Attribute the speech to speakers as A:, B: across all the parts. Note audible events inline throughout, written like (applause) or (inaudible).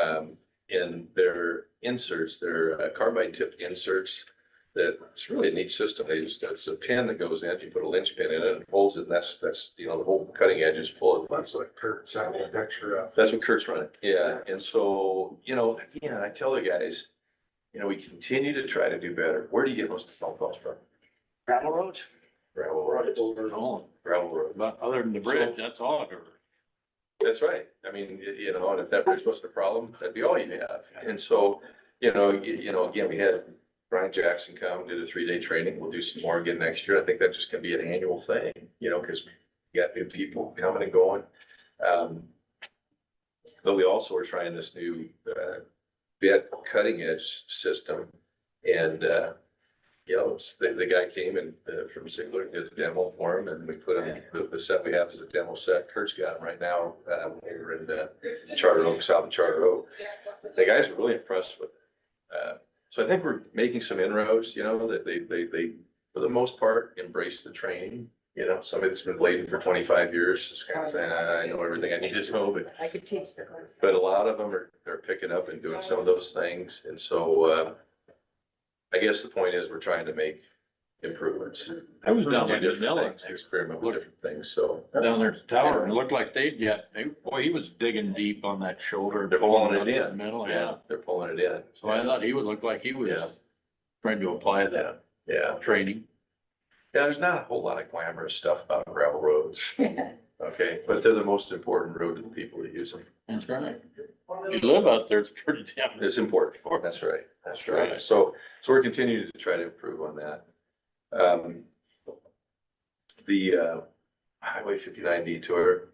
A: um, in their inserts, their uh, carbide tipped inserts. That it's really a neat system. They just, it's a pin that goes in, you put a linch pin in it and holds it. And that's, that's, you know, the whole cutting edge is full of
B: That's what Kurt sent me a picture of.
A: that's what Kurt's running, yeah, and so, you know, again, I tell the guys, you know, we continue to try to do better, where do you get most of the phone calls from?
C: Gravel roads?
A: Gravel roads, gravel road,
D: But other than the bridge, that's all I've ever.
A: that's right, I mean, y- you know, and if that bridge wasn't a problem, that'd be all you have, and so, you know, you, you know, again, we had Brian Jackson come, did a three-day training, we'll do some more again next year, I think that just can be an annual thing, you know, cause we got new people coming and going. Um, But we also are trying this new uh, bit cutting edge system. And, uh, you know, it's- the, the guy came and uh, from Ziegler did a demo for him and we put him, the, the set we have is a demo set. Kurt's got him right now. uh, We're in uh, Charter Oak, South of Charter Oak. The guys were really impressed with it. Uh, So I think we're making some inroads, you know, that they, they, they, for the most part, embrace the training. You know, somebody that's been blading for twenty-five years is kind of saying, "Ah, I I know everything I need to know, but
E: I could teach the class. (laughs)
A: but a lot of them are, are picking up and doing some of those things, and so, uh, I guess the point is, we're trying to make improvements.
D: I was
A: Do
D: down there in
A: different
D: Manila,
A: things, experiment with different things, so.
D: down there at the tower, and it looked like they'd get, they, boy, he was digging deep on that shoulder.
A: They're pulling it
D: up
A: in.
D: the Middle, yeah.
A: They're pulling it in.
D: So I thought he would look like he was
A: Yeah.
D: trying to apply
A: Yeah,
D: that
A: yeah,
D: training.
A: yeah, there's not a whole lot of glamorous stuff about gravel roads, okay, but they're the most important road to the people that use them.
D: That's right. If you live out there, it's pretty damn.
A: It's important. That's right. That's right. So, so we're continuing to try to improve on that. Um, the, uh, Highway fifty-nine detour.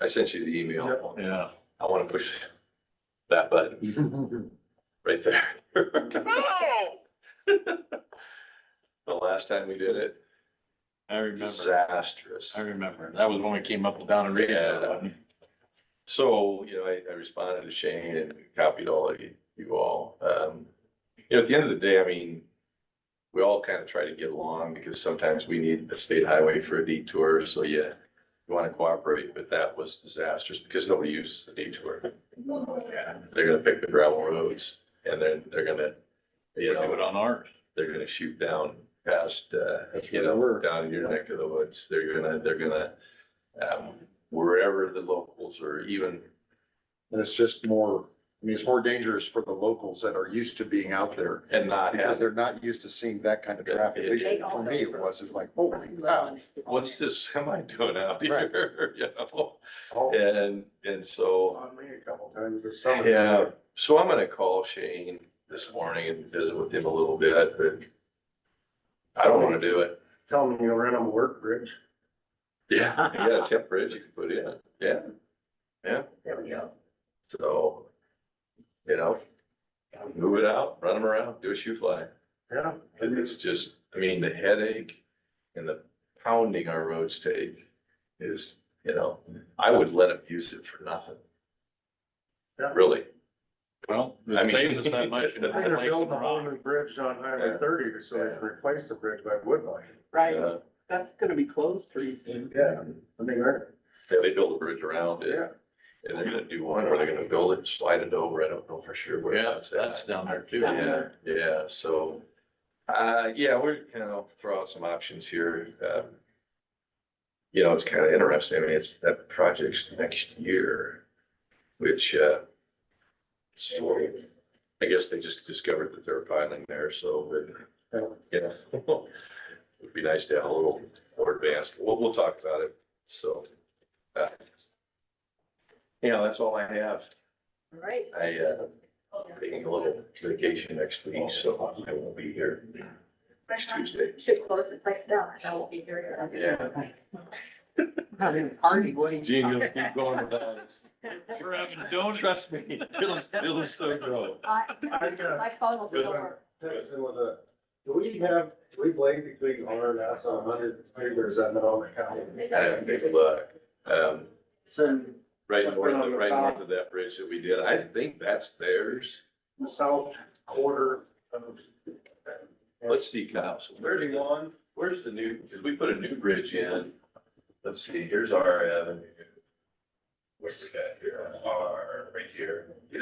A: I sent you the email.
D: (laughs) Yeah.
A: I want to push that button right there. (laughs) The last time we did it,
D: I remember,
A: disastrous.
D: I remember. That was when we came up and down and reading.
A: Yeah. So, you know, I, I responded to Shane and copied all of you, you all. Um, you know, at the end of the day, I mean, we all kind of try to get along because sometimes we need the state highway for a detour, so yeah, you want to cooperate, but that was disastrous because nobody uses the detour. Yeah, They're gonna pick the gravel roads and then they're gonna,
D: We
A: you
D: do it
A: know,
D: on ours.
A: they're gonna shoot down past, uh,
B: That's
A: you
B: where they
A: know,
B: were.
A: down in your neck of the woods. They're gonna, they're gonna, um, wherever the locals or even
B: And it's just more, I mean, it's more dangerous for the locals that are used to being out there
A: And not
B: because
A: have,
B: they're not used to seeing that kind of traffic. At least For me, it was, it's like, holy cow.
A: what's this (laughs) semi doing out
B: Right.
A: here, (laughs) you know?
B: Oh,
A: And, and so,
B: on me a couple times this summer.
A: yeah, so I'm gonna call Shane this morning and visit with him a little bit, but I don't wanna do it.
B: Tell them you'll rent them a work bridge.
A: Yeah. You got a temp bridge you can put in, yeah,
E: There we go.
A: so, you know, move it out, run them around, do a shoe fly.
B: Yeah.
A: And It's just, I mean, the headache and the pounding our roads take is, you know, I would let them use it for nothing.
B: Yeah.
A: Really,
D: Well,
A: I
D: it
A: mean-
D: saves us
A: (laughs)
D: that much. in
A: They're
B: They're
D: inflation
B: building a whole
D: rock.
B: new bridge on Highway
A: Yeah.
B: thirty to so they can replace the bridge by Woodline.
F: Right,
A: uh,
F: that's gonna be closed pretty soon.
B: Yeah. I mean, they're-
A: yeah, they build a bridge around it,
B: yeah.
A: and they're gonna do one, or they're gonna build it, and slide it over, I don't know for sure where
D: Yeah,
A: that's
D: that's
A: at.
D: down there too.
F: Down
A: Yeah, yeah, so, uh, yeah, we're, you know, throw out some options here, um. You know, it's kind of interesting, I mean, it's, that project's next year, which, uh. It's, I guess they just discovered that they're piling there, so, but yeah, (laughs) it'd be nice to have a little more advanced, we'll, we'll talk about it, so. uh, You know, that's all I have,
E: All right.
A: I, uh, taking a little vacation next week, so I won't be here next Tuesday.
E: Should close the place down, because I won't be here.
A: Yeah.
F: Not even party, what do you?
D: Gene, you'll keep going with that. We're having donuts.
A: Trust me, it'll, it'll still grow.
E: I-
B: I got-
E: My phone will still
B: Good.
E: work.
B: Text in with a, do we have, do we blade between R and S on hundred, or is that not on the county?
A: I haven't taken a look, um,
F: So,
A: right north of, right north of that bridge that we did, I think that's theirs.
B: The south quarter of.
A: Let's see, Kyle, so thirty-one, where's the new, because we put a new bridge in, let's see, here's our avenue. Where's that here, R, right here.